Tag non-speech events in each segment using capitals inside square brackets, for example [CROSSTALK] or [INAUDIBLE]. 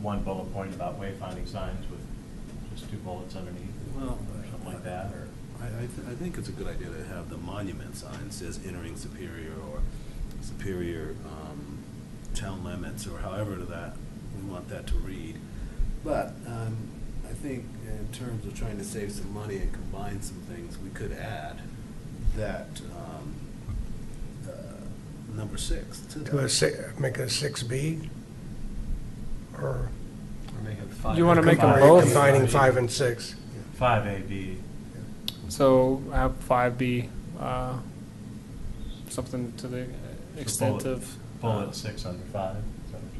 one bullet point about wayfinding signs with just two bullets underneath, Well, or something like that, or? I, I, th- I think it's a good idea to have the monument sign says entering Superior or Superior, um, town limits or however that, we want that to read. But, um, I think in terms of trying to save some money and combine some things, we could add that, um, uh, number six to that. Do a si, make a six B? Or? You wanna make 'em combine- both? Combining five and six. Five A, B, So have five be, uh, something to the extent bullet- of. uh, bullet six under five, is that what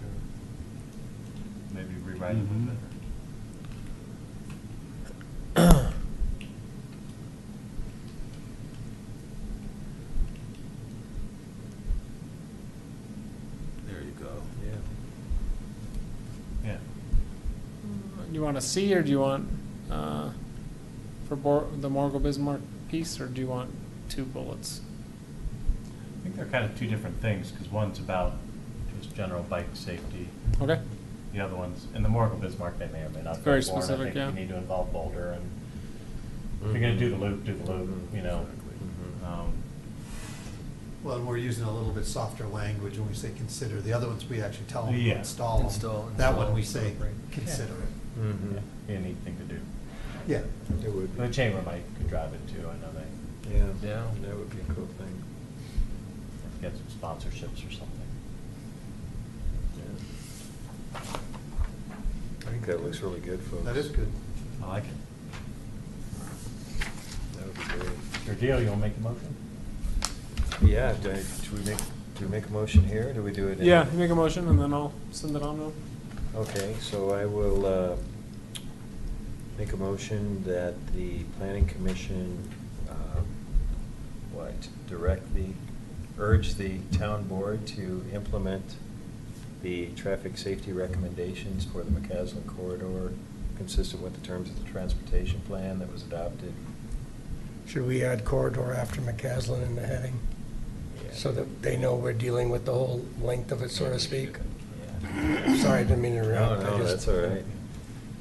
you're? Maybe rewrite it a Mhm. little bit. There you go, yeah. Yeah, You want a C or do you want, uh, for Bor- the Morgul Bismarck piece, or do you want two bullets? I think they're kind of two different things, because one's about just general bike safety, Okay, the other one's, in the Morgul Bismarck, they may or may not. be Very born. I specific, yeah. think you need to involve Boulder, and if you're gonna do the loop, do the loop, you know. um, Well, and we're using a little bit softer language when we say consider. The other ones, we actually tell them to Yeah. install 'em. Install, That one, we install, say, right. consider it. yeah, Be a neat thing Mm-hmm. to do. Yeah, It would The chamber might could drive it too, I know they Yeah, that would be a cool thing. get some sponsorships or something. I think that looks really good, folks. that is good. I like it. That would be great. Your deal, you wanna make a motion? Yeah, do, I- do we make, do we make a motion here, or do we do it? in- yeah, you make a motion and then I'll send it on to 'em. Okay, so I will, uh, make a motion that the planning commission, um, what, direct the, urge the town board to implement the traffic safety recommendations for the McCaslin corridor consistent with the terms of the transportation plan that was adopted. Should we add corridor after McCaslin in the heading? So that they know we're dealing with the whole length of it, so to speak? Yeah. Sorry, I didn't mean to No, interrupt. I Oh, no, just- that's all right.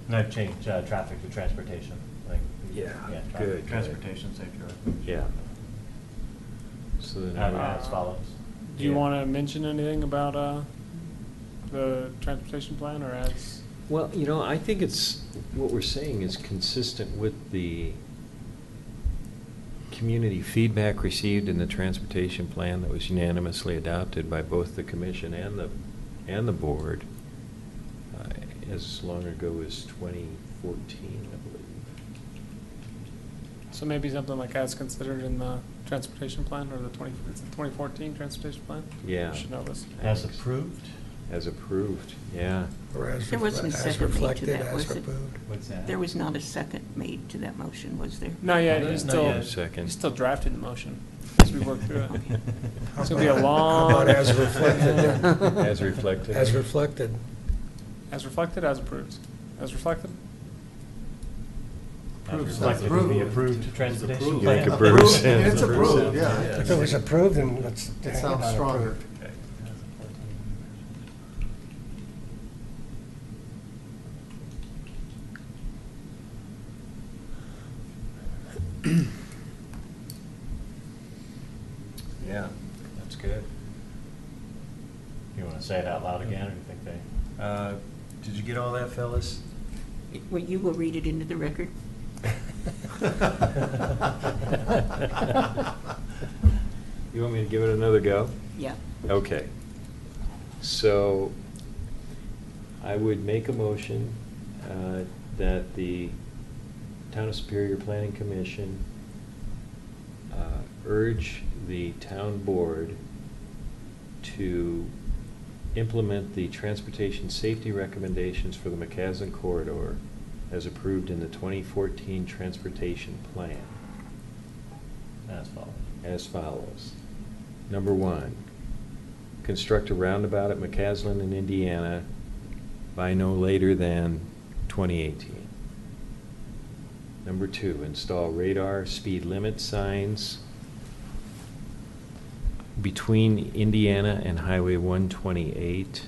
And I've changed, uh, traffic to transportation, like. Yeah, traffic- good, good. Transportation safety. Yeah. So then. Add- we- Uh, As follows. Do you Yeah. wanna mention anything about, uh, the transportation plan or as? Well, you know, I think it's, what we're saying is consistent with the community feedback received in the transportation plan that was unanimously adopted by both the commission and the, and the board uh, as long ago as 2014, I believe. So maybe something like as considered in the transportation plan or the twenty, it's the twenty fourteen transportation plan? Yeah. You Should know this. As approved? As approved, yeah. Or as, There wasn't refle- a second as to reflected, that, as was it? removed. What's that? There was not a second made to that motion, was there? Not yet, Not he's yet. still, Not yet. he's still drafting the motion as we work through it. [LAUGHS] [LAUGHS] It's gonna be a [LAUGHS] [LAUGHS] long. How about as reflected then? As reflected. As reflected. As reflected, as approved. As reflected? As reflected in the approved transportation Approved. Like plan. a Bruce. Approved. It's approved, Yeah. yeah. If it was approved, then let's. It hang sounds on stronger. approved. Okay. Yeah, that's good. You wanna say it out loud again, or you think they? Uh, Did you get all that, fellas? Well, you will read it into the record. [LAUGHS] [LAUGHS] [LAUGHS] You want me to give it another go? Yeah. Okay. So I would make a motion uh, that the Town of Superior Planning Commission uh, urge the town board to implement the transportation safety recommendations for the McCaslin corridor as approved in the 2014 transportation plan As follows. as follows. Number one, construct a roundabout at McCaslin in Indiana by no later than 2018. Number two, install radar speed limit signs between Indiana and Highway 128